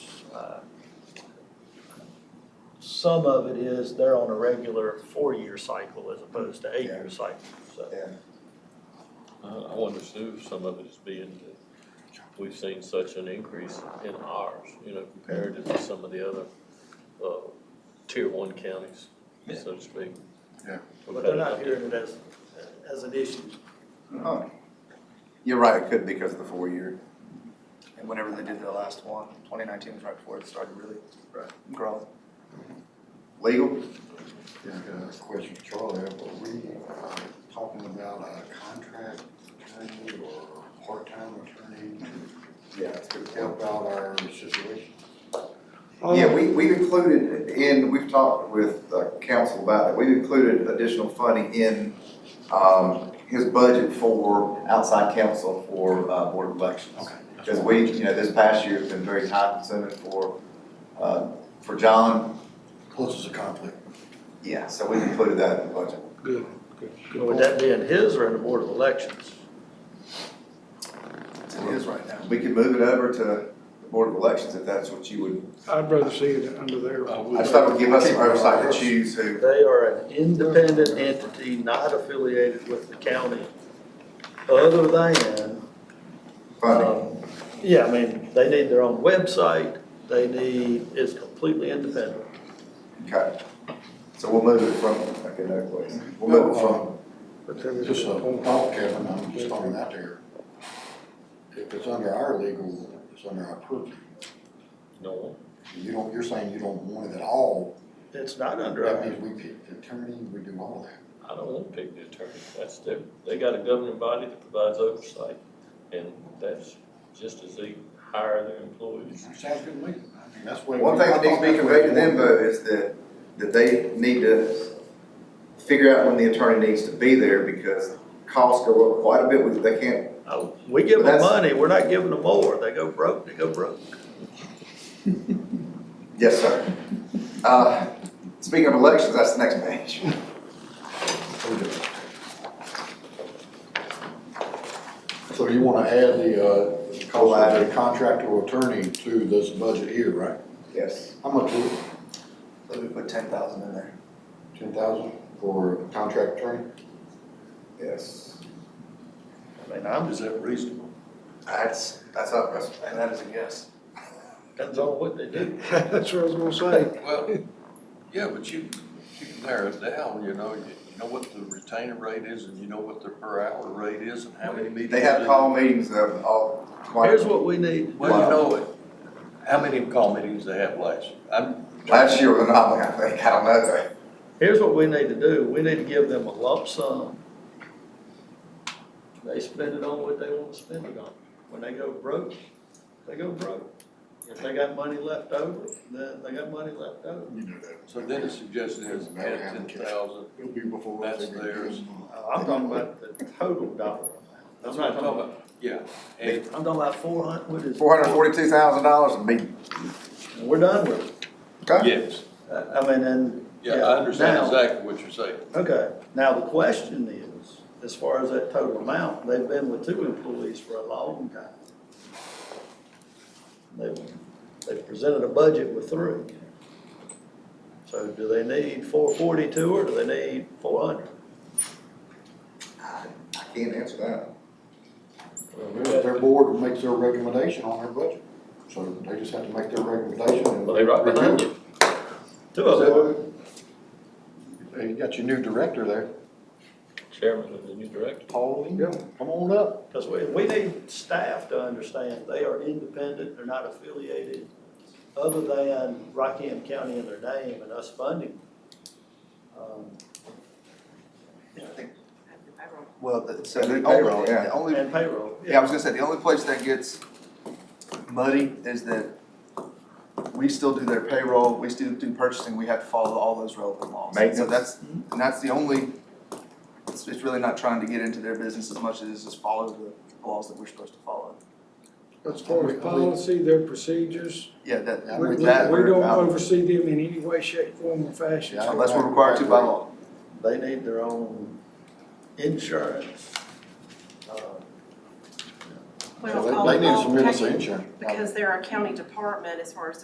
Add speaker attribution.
Speaker 1: uh, some of it is they're on a regular four-year cycle as opposed to eight-year cycle, so.
Speaker 2: Yeah.
Speaker 3: I, I wonder too, if some of it is being that we've seen such an increase in ours, you know, comparative to some of the other, uh, tier one counties, so to speak.
Speaker 2: Yeah.
Speaker 1: But they're not hearing it as, as an issue.
Speaker 2: Oh. You're right, it could because of the four-year. And whenever they did their last one, 2019 was right before it started really growing. Legal?
Speaker 4: Yeah, I got a question, for Charlie, are we talking about a contract attorney or part-time attorney
Speaker 2: Yeah, it's good.
Speaker 4: to help out our situation?
Speaker 2: Yeah, we, we've included in, we've talked with uh, council about it, we've included additional funding in um, his budget for outside counsel for uh, board elections.
Speaker 4: Okay.
Speaker 2: Because we, you know, this past year's been very time consuming for, uh, for John,
Speaker 4: Closes a conflict.
Speaker 2: yeah, so we've included that in the budget.
Speaker 5: Good, good, good.
Speaker 1: Would that be in his or in the Board of Elections?
Speaker 2: It is right now. We could move it over to the Board of Elections if that's what you would,
Speaker 5: I'd rather see it under there.
Speaker 2: I just thought it would give us some oversight to choose who.
Speaker 1: They are an independent entity not affiliated with the county, other than,
Speaker 2: Funding.
Speaker 1: um, yeah, I mean, they need their own website, they need, it's completely independent.
Speaker 2: Okay. So we'll move it from, okay, no, please. We'll um, move it from,
Speaker 5: But then
Speaker 4: Just
Speaker 5: it's-
Speaker 4: a thought, Kevin, I'm just throwing that there. If it's under our legal, it's under our purview.
Speaker 3: No,
Speaker 4: You don't, you're saying you don't want it at all,
Speaker 1: It's not under
Speaker 4: that
Speaker 1: our,
Speaker 4: means we pick the attorney, we do all that.
Speaker 3: I don't want to pick the attorney, that's their, they got a governing body that provides oversight, and that's just as they hire their employees.
Speaker 4: Sounds good to me. I mean, that's the way.
Speaker 2: one thing that needs to be conveyed to them though is that, that they need to figure out when the attorney needs to be there because costs go up quite a bit with, they can't,
Speaker 1: uh, we give
Speaker 2: But
Speaker 1: them
Speaker 2: that's-
Speaker 1: money, we're not giving them more, they go broke, they go broke.
Speaker 2: yes, sir. Uh, speaking of elections, that's the next page.
Speaker 4: So you wanna add the, uh, the cost of the contractor or attorney to this budget here, right?
Speaker 2: Yes.
Speaker 4: How much is it?
Speaker 2: Let me put ten thousand in there.
Speaker 4: Ten thousand for contract attorney?
Speaker 2: Yes.
Speaker 1: I mean, I'm,
Speaker 4: Is that reasonable?
Speaker 2: That's, that's up, that's- and that is a guess.
Speaker 1: depends on what they do.
Speaker 5: That's what I was gonna say.
Speaker 6: Well, yeah, but you, you can narrow it down, you know, you, you know what the retainer rate is and you know what the per hour rate is and how many meetings.
Speaker 2: They have
Speaker 6: it-
Speaker 2: call meetings of all,
Speaker 1: Here's what we need,
Speaker 6: Well, you know it, how many call meetings they have last, I'm.
Speaker 2: last year was an anomaly, I think, I don't know.
Speaker 1: Here's what we need to do, we need to give them a lump sum. They spend it on what they wanna spend it on. When they go broke, they go broke. If they got money left over, then they got money left over.
Speaker 4: You know that.
Speaker 6: So then the suggestion is add ten thousand,
Speaker 4: It'll be before.
Speaker 6: That's
Speaker 4: they get
Speaker 6: theirs.
Speaker 4: them.
Speaker 1: I'm talking about the total dollar amount.
Speaker 6: that's what I'm talking about, yeah. And
Speaker 1: I'm talking about four hundred, what is?
Speaker 2: Four hundred forty-two thousand dollars a meeting.
Speaker 1: And We're done with it.
Speaker 2: Okay.
Speaker 6: yes,
Speaker 1: I I mean, and.
Speaker 6: yeah, I understand
Speaker 1: now-
Speaker 6: exactly what you're saying.
Speaker 1: Okay, now the question is, as far as that total amount, they've been with two employees for a long time. They, they presented a budget with three. So do they need four forty-two or do they need four hundred?
Speaker 2: I I can't answer that.
Speaker 4: Well, Their board makes their recommendation on their budget, so they just have to make their recommendation and.
Speaker 3: Well, they right behind you.
Speaker 1: Two of them,
Speaker 4: Hey, you got your new director there,
Speaker 3: Chairman of the new director.
Speaker 4: Pauline,
Speaker 5: Yeah.
Speaker 4: come on up.
Speaker 1: because we, we need staff to understand they are independent, they're not affiliated other than Rockham County in their name and us funding. them. Um,
Speaker 7: Well, the, so
Speaker 2: And
Speaker 7: the
Speaker 2: the payroll,
Speaker 7: only,
Speaker 2: yeah.
Speaker 7: the only,
Speaker 1: And payroll.
Speaker 7: yeah, I was gonna say, the only place that gets muddy is that we still do their payroll, we still do purchasing, we have to follow all those relevant laws. And So that's, and that's the only, it's, it's really not trying to get into their business as much as it's just follow the laws that we're supposed to follow.
Speaker 5: As far as policy, their procedures,
Speaker 7: Yeah, that,
Speaker 4: Yeah,
Speaker 5: we, we
Speaker 7: with
Speaker 5: we
Speaker 7: that, we're
Speaker 5: don't
Speaker 7: out,
Speaker 5: oversee them in any way, shape, form, or fashion.
Speaker 4: Yeah.
Speaker 7: unless we're required to by law.
Speaker 1: they need their own insurance. Uh,
Speaker 4: So
Speaker 8: Well,
Speaker 4: they-
Speaker 8: all-
Speaker 4: They need
Speaker 8: all oh,
Speaker 4: some minutes of
Speaker 8: county-
Speaker 4: insurance.
Speaker 8: Because they're a county department as far as